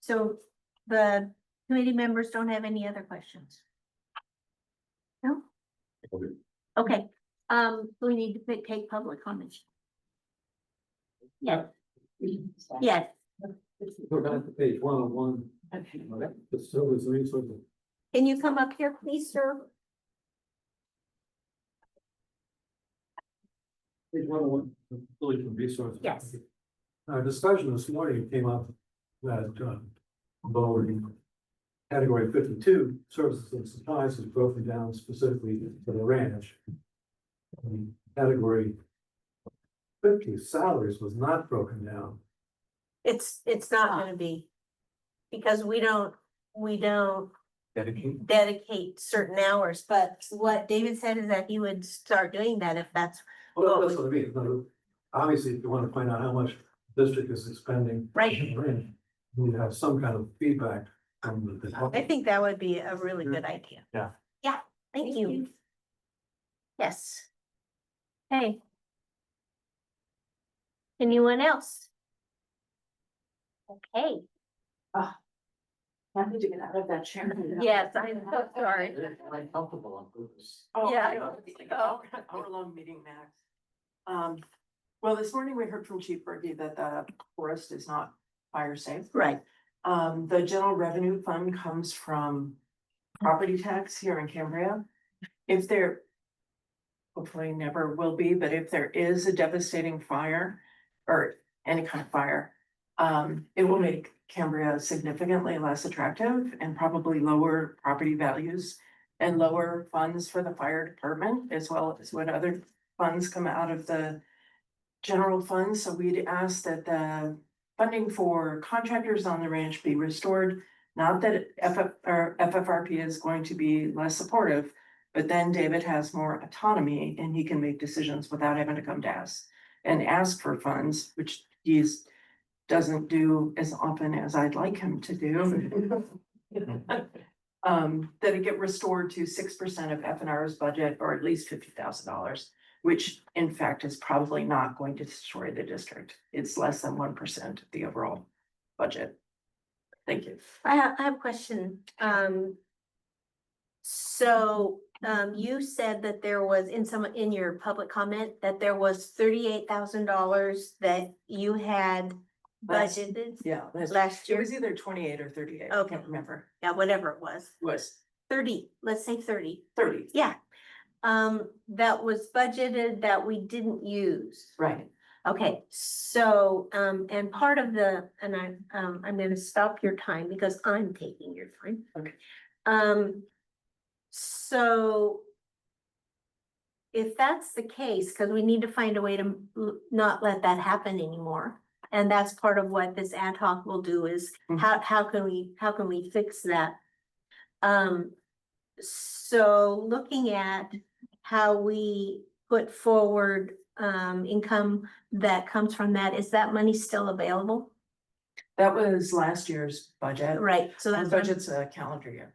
So the committee members don't have any other questions? No? Okay. Okay, um, we need to pick- take public comments. Yeah, yes, Go back to page one oh one, facilities resources. can you come up here, please, sir? Page one oh one, facilities and resources. Yes. Our discussion this morning came up that, um, lower in category fifty-two, services and supplies is broken down specifically for the ranch. Um, Category fifty, salaries was not broken down. It's, it's not gonna be. Because we don't, we don't Dedicated. dedicate certain hours, but what David said is that he would start doing that if that's Well, that's what I mean, Now, obviously, if you want to find out how much district is expending right. Right. We have some kind of feedback from the. I think that would be a really good idea. Yeah. Yeah, thank you. Yes. Hey. Anyone else? Okay, Happy to get out of that chair. yes, I'm so sorry. Uncomfortable on purpose. Oh, Yeah, Oh. I know, it's like an hour, hour long meeting max. Um, well, this morning we heard from Chief Berkey that the forest is not fire safe. Right, Um, the general revenue fund comes from property tax here in Cambria. If there. Hopefully never will be, but if there is a devastating fire or any kind of fire. Um, it will make Cambria significantly less attractive and probably lower property values. And lower funds for the fire department as well as what other funds come out of the. General fund, so we'd ask that the funding for contractors on the ranch be restored. Not that FF, or FFRP is going to be less supportive, but then David has more autonomy and he can make decisions without having to come to us and ask for funds, which he's doesn't do as often as I'd like him to do. Um, that it get restored to six percent of F and R's budget or at least fifty thousand dollars which in fact is probably not going to destroy the district. It's less than one percent of the overall budget. Thank you. I have, I have a question, um. So, um, you said that there was in some, in your public comment, that there was thirty-eight thousand dollars that you had Last- budgeted Yeah. that's- last It year, was either twenty-eight or thirty-eight. I Okay. can't remember. yeah, whatever it was, Was thirty, let's say thirty. thirty. Yeah, um, that was budgeted that we didn't use. Right. Okay, so, um, and part of the, and I, um, I'm gonna stop your time because I'm taking your time. Okay. Um, so. If that's the case, cause we need to find a way to m- not let that happen anymore. And that's part of what this ad hoc will do is Mhm. how, how can we, how can we fix that? Um, so looking at how we put forward, um, income that comes from that, is that money still available? That was last year's budget. Right, so The that's, what I'm- Budget's a calendar year.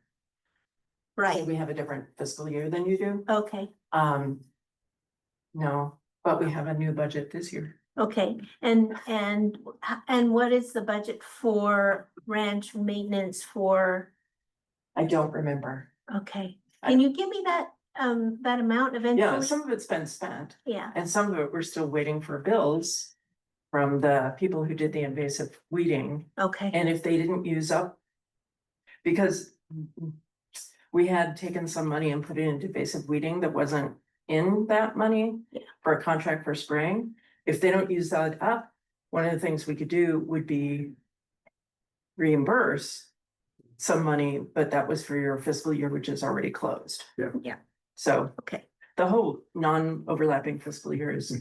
So right, We have a different fiscal year than you do. okay, Um. No, but we have a new budget this year. okay, and, and, and what is the budget for ranch maintenance for, I don't remember. okay? I Can you give me that, um, that amount Yeah, eventually? some of it's been spent. Yeah, And some of it, we're still waiting for bills from the people who did the invasive weeding, okay, and if they didn't use up. Because we had taken some money and put it into invasive weeding that wasn't in that money Yeah. for a contract for spraying. If they don't use that up, one of the things we could do would be reimburse some money, but that was for your fiscal year, which is already closed. Yeah. Yeah. So okay, the whole non-overlapping fiscal year is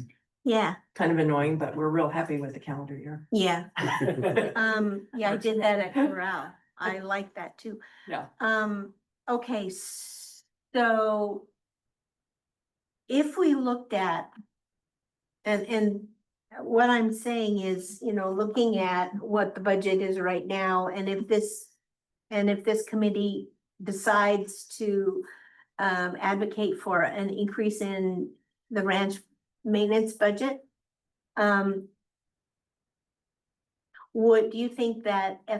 yeah, kind of annoying, but we're real happy with the calendar year. yeah. Well, Um, yeah, I did that at Corral. I like that too. Yeah. Um, okay, s- so. If we looked at. And, and what I'm saying is, you know, looking at what the budget is right now and if this. And if this committee decides to, um, advocate for an increase in the ranch maintenance budget. Um. Would, do you think that